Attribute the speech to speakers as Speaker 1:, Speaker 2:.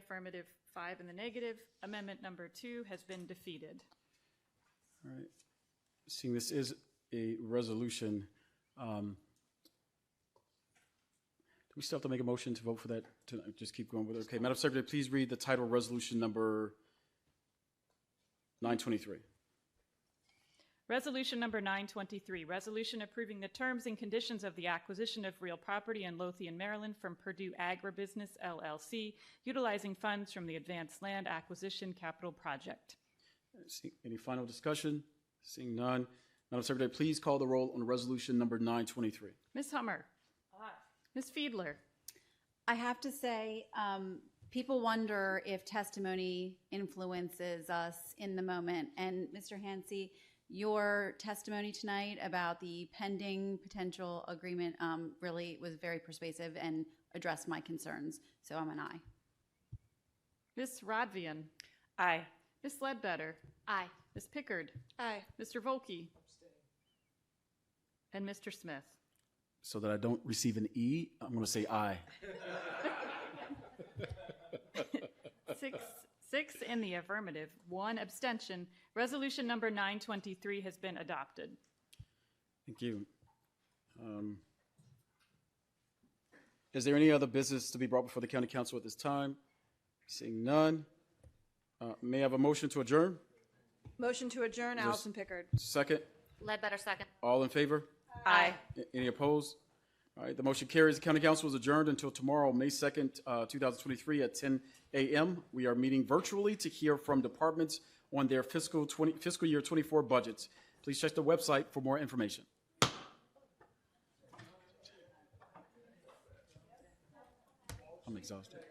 Speaker 1: affirmative, five in the negative. Amendment number two has been defeated.
Speaker 2: All right. Seeing this is a resolution, um, do we still have to make a motion to vote for that? To just keep going with it? Okay, Madam Secretary, please read the title of resolution number 923.
Speaker 1: Resolution number 923, resolution approving the terms and conditions of the acquisition of real property in Lothian, Maryland from Purdue Agribusiness LLC, utilizing funds from the Advanced Land Acquisition Capital Project.
Speaker 2: See- Any final discussion? Seeing none. Madam Secretary, please call the roll on resolution number 923.
Speaker 1: Ms. Hummer? Ms. Fiedler?
Speaker 3: I have to say, um, people wonder if testimony influences us in the moment. And Mr. Hansi, your testimony tonight about the pending potential agreement um, really was very persuasive and addressed my concerns. So I'm an aye.
Speaker 1: Ms. Rodvian? Aye. Ms. Ledbetter? Aye. Ms. Pickard?
Speaker 4: Aye.
Speaker 1: Mr. Volkey? And Mr. Smith?
Speaker 2: So that I don't receive an E, I'm going to say aye.
Speaker 1: Six, six in the affirmative, one abstention. Resolution number 923 has been adopted.
Speaker 2: Thank you. Um, Is there any other business to be brought before the county council at this time? Seeing none, uh, may I have a motion to adjourn?
Speaker 4: Motion to adjourn, Allison Pickard.
Speaker 2: Second,
Speaker 5: Ledbetter, second.
Speaker 2: all in favor?
Speaker 5: Aye.
Speaker 2: A- Any opposed? All right, the motion carries. The county council is adjourned until tomorrow, May 2nd, uh, 2023 at 10 a.m. We are meeting virtually to hear from departments on their fiscal 20, fiscal year 24 budgets. Please check the website for more information. I'm exhausted.